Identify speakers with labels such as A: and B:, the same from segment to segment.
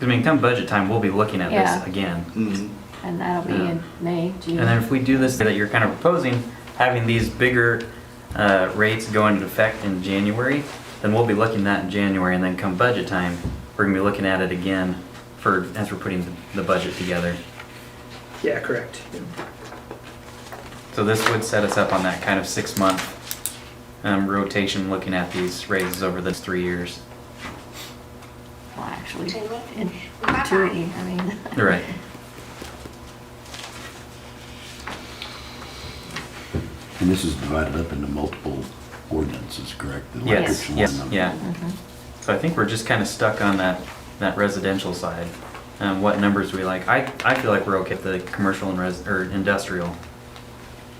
A: I mean, come budget time, we'll be looking at
B: Yeah.
A: this again.
C: Mm.
D: Mhm.
A: Mm-hmm.
B: And that'll be in May, June.
A: And then if we do this that you're kind of proposing, having these bigger uh, rates go into effect in January, then we'll be looking at that in January, and then come budget time, we're gonna be looking at it again for, as we're putting the- the budget together.
C: Yeah, correct.
A: So this would set us up on that kind of six-month um, rotation, looking at these raises over those three years.
B: Well, actually,
E: Two weeks.
B: in
E: Bye-bye.
B: perpetuity, I mean.
A: Right.
F: And this is divided up into multiple ordinances, correct? The
A: Yes,
F: electric
A: yes,
F: one, the-
A: yeah.
B: Mhm.
A: So I think we're just kind of stuck on that, that residential side. Um, what numbers we like. I, I feel like we're okay with the commercial and res, or industrial.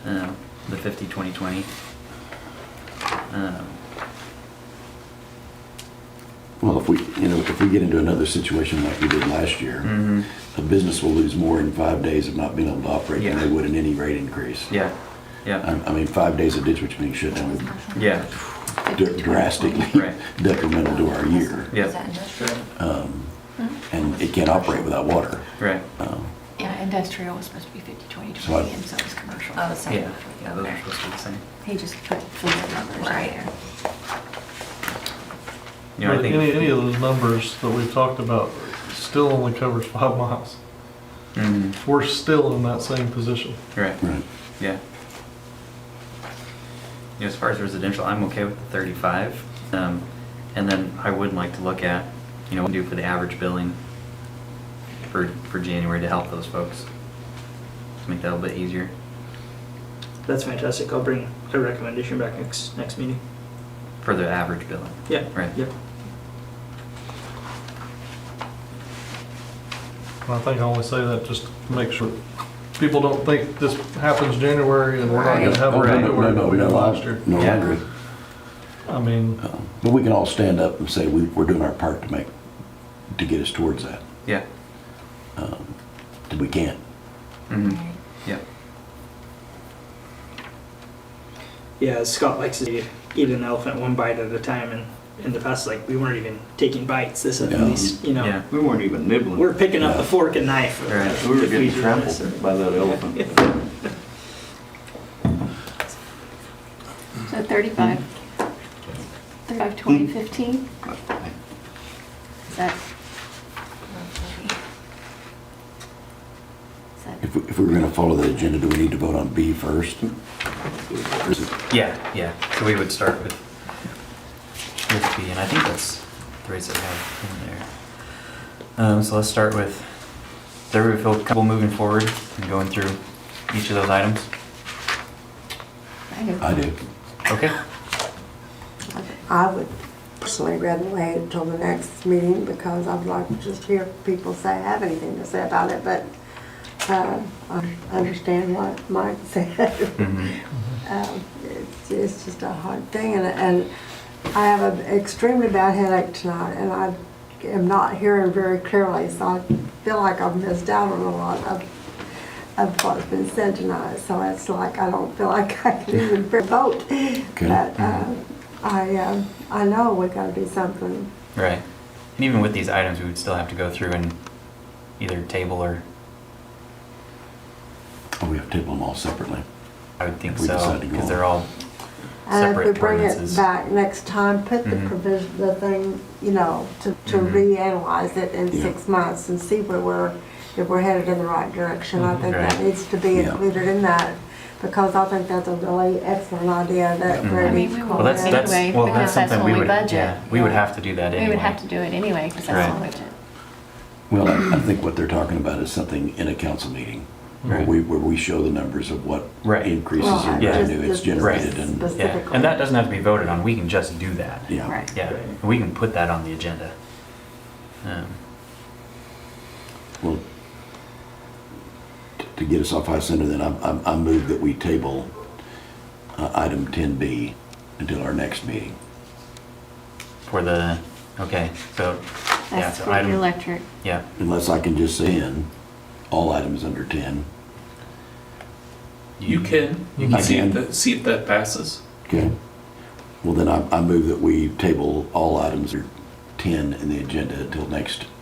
A: Um, the fifty, twenty, twenty. Um,
F: Well, if we, you know, if we get into another situation like we did last year,
A: mhm.
F: a business will lose more in five days of not being able to operate than
A: Yeah.
F: they would in any rate increase.
A: yeah,
F: I,
A: yeah,
F: I mean, five days of ditch witch being shut down would
A: yeah,
F: dr- drastically
A: Right.
F: detrimental to our year.
A: Yeah.
E: Is that industrial?
F: Um,
B: Mm-hmm.
F: And it can't operate without water.
A: right.
F: Um,
G: Yeah, industrial was supposed to be 50, 20,
F: So I-
G: 20, and so was commercial.
E: Oh, it's-
A: Yeah, yeah, those are supposed to be the same.
B: He just put figure numbers in
E: Right.
B: there.
A: You know, I
H: But Any, any of
A: think.
H: those numbers that we've talked about still only covers five miles.
A: Mhm,
H: We're still in that same position.
A: Right,
F: Right.
A: yeah. You know, as far as residential, I'm okay with the thirty-five. Um, and then I would like to look at, you know, what we do for the average billing for, for January to help those folks. To make that a little bit easier.
C: That's fantastic. I'll bring a recommendation back next, next meeting.
A: For the average billing.
C: Yeah.
A: Right.
C: Yep.
H: And I think I only say that just to make sure people don't think this happens January and we're not gonna have
F: Oh,
H: a
F: no, no,
H: February
F: no,
H: that we had
F: no,
H: last year.
F: No, I
A: Yeah.
F: agree.
H: I mean,
F: Um, But we can all stand up and say, we, we're doing our part to make, to get us towards that.
A: Yeah.
F: Um, We can't.
A: hmm Yep.
C: Yeah, as Scott likes to eat an elephant one bite at a time, and in the past, like we weren't even taking bites. This at
F: Yeah.
C: least, you know,
A: Yeah.
D: We weren't even nibbling.
C: we're picking up
F: Yeah.
C: a fork and knife.
A: Right.
D: We were
C: If
D: getting
C: do this.
D: trampled by that elephant.
B: So 35, 35, 20,
F: Mm.
B: 15? Is that, is that,
F: If, we- if we we're gonna follow that agenda, do we need to vote on B first? Or is it-
A: Yeah, yeah. So we would start with, with B, and I think that's the rates that we have in there. Um, so let's start with, does everybody feel comfortable moving forward and going through each of those items?
B: I do.
F: I do.
A: Okay.
I: I would personally rather wait until the next meeting because I'd like to just hear people say, have anything to say about it, but uh, I understand what Mike said.
F: Mm-hmm.
I: Um, It's it's just a hard thing, and, and I have an extremely bad headache tonight, and I am not hearing very clearly, so I feel like I've missed out on a lot of, of what's been said tonight, so it's like, I don't feel like I can even vote. But uh, I, uh, I know we gotta do something.
A: Right. And even with these items, we would still have to go through and either table or,
F: Oh, we have to table them all separately.
A: I would think
F: If we
A: so,
F: decide to go
A: because
F: on.
A: they're
B: Uh,
A: all
I: And if we
A: separate
I: bring
A: ordinances.
I: it back next time, put the
A: Mhm.
I: provision, the thing, you know, to, to
A: Mhm.
I: reanalyze it in
F: Yeah.
I: six months and see where we're, if we're headed in the right direction. I think that
A: Mm-hmm. Right.
I: needs to be
F: Yeah.
I: included in that, because I think that's a really excellent idea that
A: Mhm.
I: Brady.
B: I mean, we
I: called
A: Well, that's,
I: in.
A: that's,
B: Anyway,
A: well,
B: because
A: that's
B: that's
A: something we
B: when we
A: would,
B: budget.
A: yeah, we would
B: Yeah.
A: have to do that anyway.
B: We would have to do it anyway, because that's the
A: Right.
B: budget.
F: Well, I, I think what they're talking about is something in a council meeting, where
A: Right.
F: we, where we show the numbers of what
A: Right.
F: increases
I: Well,
F: in
A: Yeah.
F: revenue it's
I: just- just
F: generated and,
I: specific-
A: Yeah, and that doesn't have to be voted on, we can just do that.
F: yeah.
B: Right.
A: Yeah, and we can put that on the agenda. Um,
F: Well, t- to get us off high center, then I, I, I move that we table uh, item ten B until our next meeting.
A: For the, okay, so, yeah,
B: That's
A: so
B: for the
A: item,
B: electric.
A: yeah,
F: Unless I can just say in all items under ten.
J: You can.
F: You can.
J: See
F: I
J: if
F: can.
J: that, see if that passes.
F: Okay. Well, then I, I move that we table all items or 10 in the agenda until next